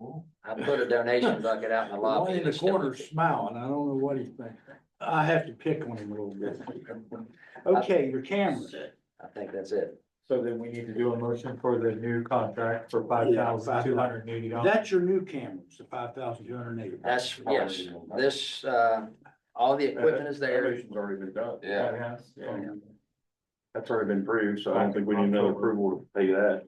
I put a donation bucket out in the One lobby. in the corner smiling, I don't know what he thinks. I have to pick on him a little bit. Okay, your camera. I think that's it. So then we need to do a motion for the new contract for five thousand two hundred and eighty dollars. That's your new cameras, the five thousand two hundred and eighty. That's, yes, this, uh, all the equipment is there. Evaluation's already been done. Yeah, That's already been approved, so I don't think we need another approval to pay that.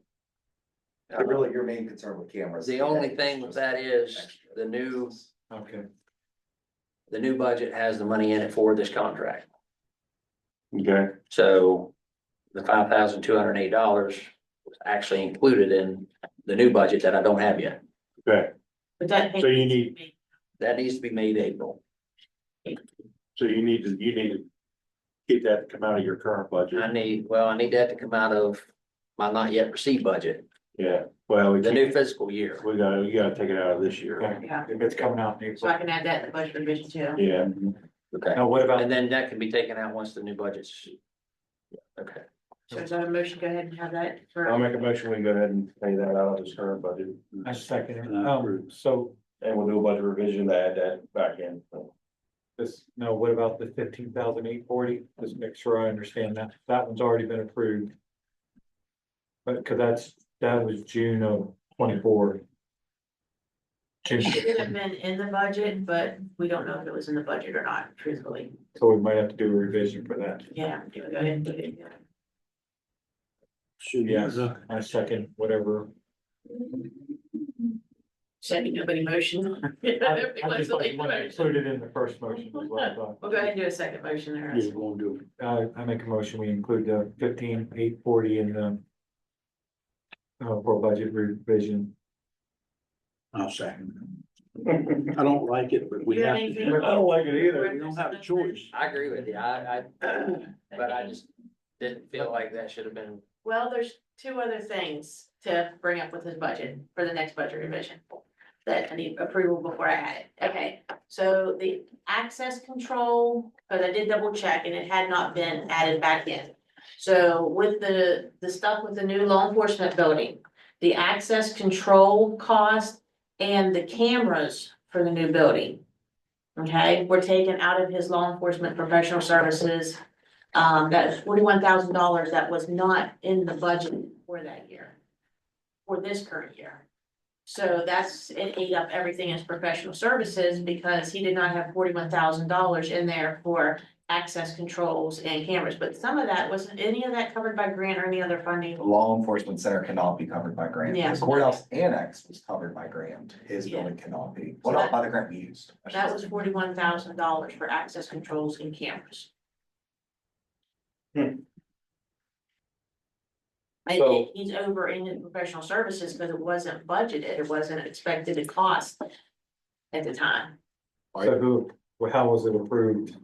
really your main concern with cameras. Uh, The only thing with that is the new, Okay, the new budget has the money in it for this contract. Okay, So the five thousand two hundred and eight dollars was actually included in the new budget that I don't have yet. okay. But that. So you need- That needs to be made April. So you need to, you need to get that to come out of your current I budget. need, well, I need that to come out of my not yet received budget, Yeah, well, we the can't- new fiscal year. we gotta, you gotta take it out of this year. okay. Yeah. If it's coming out in So I April. can add that to the budget revision too. Yeah, Okay. Now, what about, And then that can be taken out once the new budget's. Okay, So is that a motion? Go ahead and have that for. I'll make a motion, we go ahead and pay that out of this current budget, I second it. And I Um, so and we'll do a budget revision to add that back in. this, no, what about the fifteen thousand eight forty? Just make sure I understand that. That one's already been approved. But, cause that's, that was June of twenty-four. June, It should have been in the budget, but we don't know if it was in the budget or not, truthfully. so we might have to do a revision for that. Yeah, go ahead and do it. Yes, I second whatever. Sending nobody motion. I I just like We'll when I included in the first motion as well. but- go ahead and do a second motion there. You're gonna do it. I, Uh, I make a motion, we include the fifteen, eight forty in the. Uh, for budget revision. I'll second. it. I don't like it, but we You have have to. do anything? it. I don't like it either. We don't have a choice. I agree with you, I, I, but I just didn't feel like that should have been, Well, there's two other things to bring up with his budget for the next budget revision. That I need approval before I had it. Okay, so the access control, because I did double check and it had not been added back in. So with the, the stuff with the new law enforcement building, the access control cost and the cameras for the new building. Okay, were taken out of his law enforcement professional services um, that forty-one thousand dollars that was not in the budget for that year. For this current year. So that's, it ate up everything as professional services because he did not have forty-one thousand dollars in there for access controls and cameras. But some of that, wasn't any of that covered by grant or any other funding? Law enforcement center cannot be covered by grant. Yeah. The Courthouse annex was covered by grant, his building cannot be, well, not by the grant we used. I should That was say. forty-one thousand dollars for access controls and cameras. Hmm. I- So- he's over in his professional services, but it wasn't budgeted, it wasn't expected to cost at the time. So who, well, how was it approved?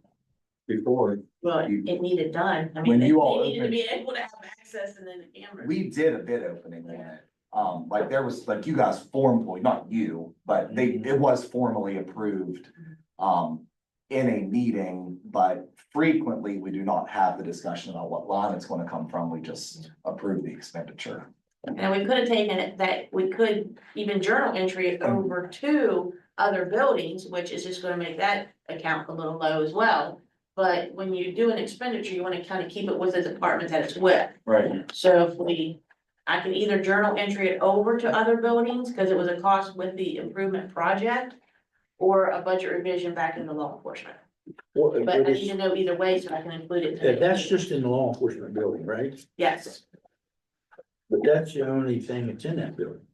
Before, Well, it needed done, I mean, When they you they all needed to be opened- able to have access and then the cameras. We did a bid opening on it. Um, like there was, like you guys formally, not you, but they, it was formally approved. Um, in a meeting, but frequently we do not have the discussion about what line it's gonna come from. We just approve the expenditure. And we could have taken it that, we could even journal entry it Um. over to other buildings, which is just gonna make that account a little low as well. But when you do an expenditure, you wanna kind of keep it with the department that it's with. Right, So if we, I can either journal entry it over to other buildings, cause it was a cost with the improvement project. Or a budget revision back into law enforcement, but uh, I need to know either way, so I can include it. That- That's just in the law enforcement building, right? Yes, But that's the only thing that's in that building.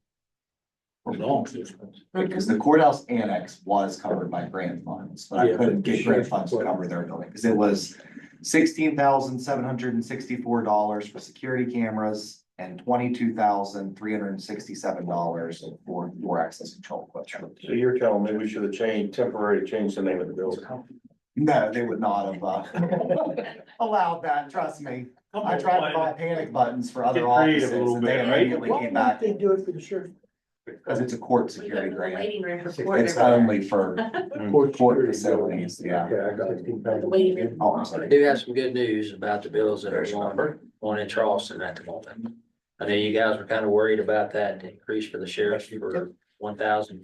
For Law enforcement. Because the courthouse annex was covered by grant funds, but I Yeah, couldn't but get grant sure. funds to cover their building, because it was sixteen thousand seven hundred and sixty-four dollars for security cameras and twenty-two thousand three hundred and sixty-seven dollars for door access control equipment. so you're telling me we should have changed, temporarily changed the name of the building. No, they would not have uh, allowed that, trust me. I tried to buy panic buttons for other Get creative offices a little and they bit, right? immediately Why came back, don't they do it for the sheriff? because it's a court we go security to the grant. waiting room for court. It's only for Court court security facilities, yeah. building. The waiting room. Oh, I'm I sorry. do have some good news about the bills that are going, on in Charleston at the moment. I know you guys were kind of worried about that increase for the sheriff for one thousand